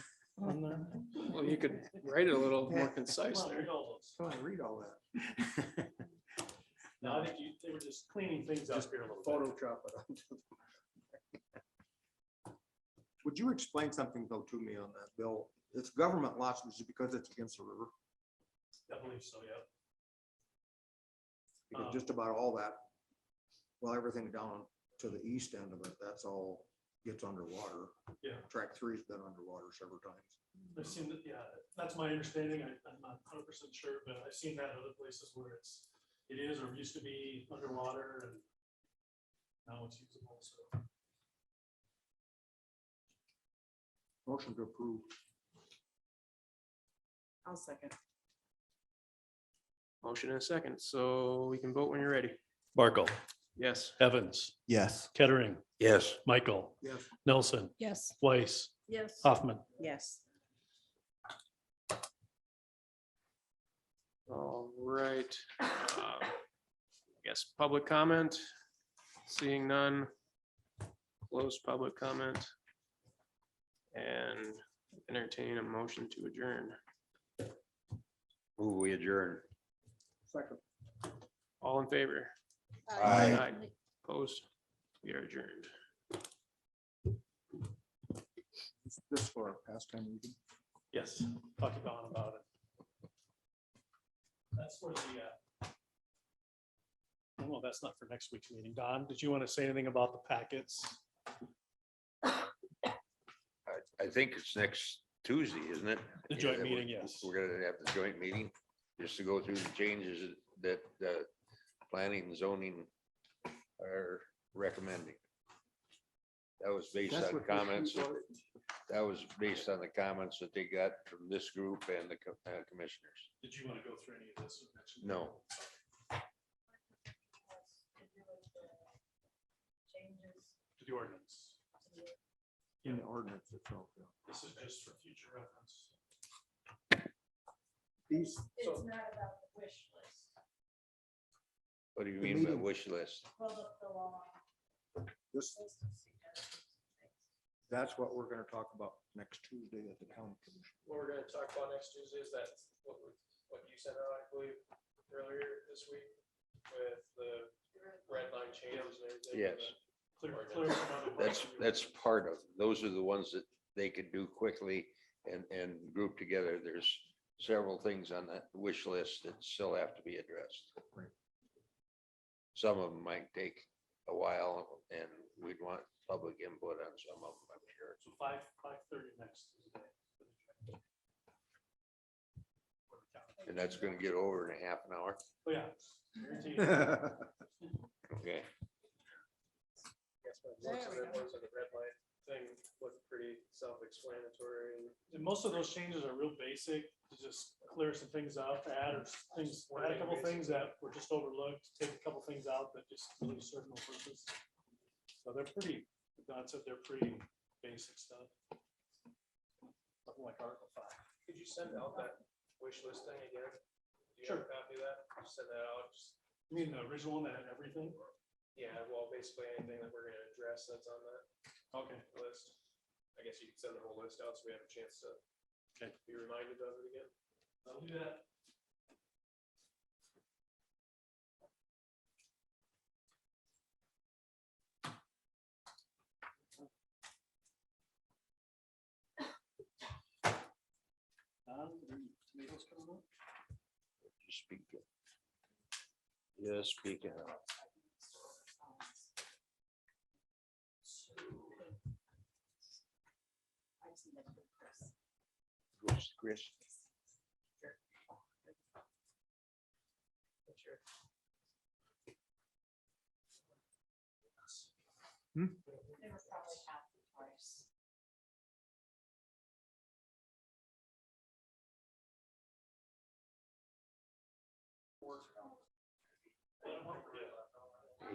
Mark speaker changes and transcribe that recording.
Speaker 1: on there?
Speaker 2: Well, you could write it a little more concise there.
Speaker 1: How do I read all that?
Speaker 3: No, I think you, they were just cleaning things up here a little bit.
Speaker 1: Photoshop it. onto the- Would you explain something though to me on that bill? It's government lots, which is because it's against the river,
Speaker 3: I believe so, yeah.
Speaker 1: because
Speaker 3: Um.
Speaker 1: just about all that, well, everything down to the east end of it, that's all gets underwater.
Speaker 3: Yeah.
Speaker 1: Track three's been underwater several times.
Speaker 3: I've seen that, yeah, that's my understanding. I- I'm not hundred percent sure, but I've seen that in other places where it's, it is or used to be underwater and now it's usable, so.
Speaker 1: Motion to approve.
Speaker 4: I'll second.
Speaker 2: Motion in a second, so we can vote when you're ready.
Speaker 5: Barkle,
Speaker 2: Yes.
Speaker 5: Evans,
Speaker 6: Yes.
Speaker 5: Kettering,
Speaker 6: Yes.
Speaker 5: Michael,
Speaker 1: Yes.
Speaker 5: Nelson,
Speaker 4: Yes.
Speaker 5: Weiss,
Speaker 4: Yes.
Speaker 3: Uh,
Speaker 5: Hoffman.
Speaker 4: Yes.
Speaker 2: All right. um, I Guess public comment, seeing none. Close public comment. And entertain a motion to adjourn.
Speaker 6: Ooh, we adjourn.
Speaker 1: Second.
Speaker 2: All in favor?
Speaker 6: Aye.
Speaker 2: Opposed? We are adjourned.
Speaker 1: This for our pastime meeting.
Speaker 3: Yes, talk to Don about it. That's for the, uh, well, that's not for next week's meeting. Don, did you want to say anything about the packets?
Speaker 7: I, I think it's next Tuesday, isn't it?
Speaker 3: The
Speaker 7: Yeah,
Speaker 3: joint
Speaker 7: that we're-
Speaker 3: meeting, yes.
Speaker 7: We're gonna have the joint meeting, just to go through the changes that, uh, planning and zoning are recommending. That was based
Speaker 1: That's
Speaker 7: on
Speaker 1: what this
Speaker 7: comments,
Speaker 1: group voted.
Speaker 7: that was based on the comments that they got from this group and the co- uh, commissioners.
Speaker 3: Did you want to go through any of this? with next week?
Speaker 7: No,
Speaker 3: To the ordinance.
Speaker 1: In the ordinance itself. yeah.
Speaker 3: This is just for future reference.
Speaker 1: These,
Speaker 8: It's not about the wish list,
Speaker 7: what do you
Speaker 1: The
Speaker 7: mean by
Speaker 1: meeting-
Speaker 7: wish list?
Speaker 8: well, the, the long
Speaker 1: this,
Speaker 8: list of suggestions and things.
Speaker 1: that's what we're gonna talk about next Tuesday at the county commission.
Speaker 2: What we're gonna talk about next Tuesday is that, what, we- what you sent out, I believe, earlier this week with the red line changes and everything.
Speaker 7: Yes.
Speaker 3: Clear, clear. some other
Speaker 7: That's,
Speaker 3: parts.
Speaker 7: that's part of, those are the ones that they could do quickly and, and group together. There's several things on that wish list that still have to be addressed.
Speaker 1: Right.
Speaker 7: Some of them might take a while and we'd want public input on some of them, I'm sure.
Speaker 3: So five, five thirty next Tuesday.
Speaker 7: And that's gonna get over in a half an hour,
Speaker 3: Oh, yeah. Guaranteed.
Speaker 7: okay?
Speaker 2: Yes, but
Speaker 4: There
Speaker 2: most of
Speaker 4: we
Speaker 2: it
Speaker 4: go.
Speaker 2: was in the red light thing looked pretty self-explanatory and
Speaker 3: And most of those changes are real basic, to just clear some things up, add or things, add a couple things that were just overlooked, take a couple things out that just really serve no purpose. So they're pretty, Don said they're pretty basic stuff. Something like Article five.
Speaker 2: Could you send out that wish list thing again? Do you
Speaker 3: Sure.
Speaker 2: have a copy of that? Just Send that out. just-
Speaker 3: You mean the original one that had everything?
Speaker 2: Yeah, well, basically anything that we're gonna address that's on that
Speaker 3: Okay.
Speaker 2: list. I guess you can send the whole list out so we have a chance to
Speaker 3: Okay.
Speaker 2: be reminded of it again.
Speaker 3: I'll do that. Um, tomatoes coming up?
Speaker 7: Just speak it. Just speak it out. Chris, Chris.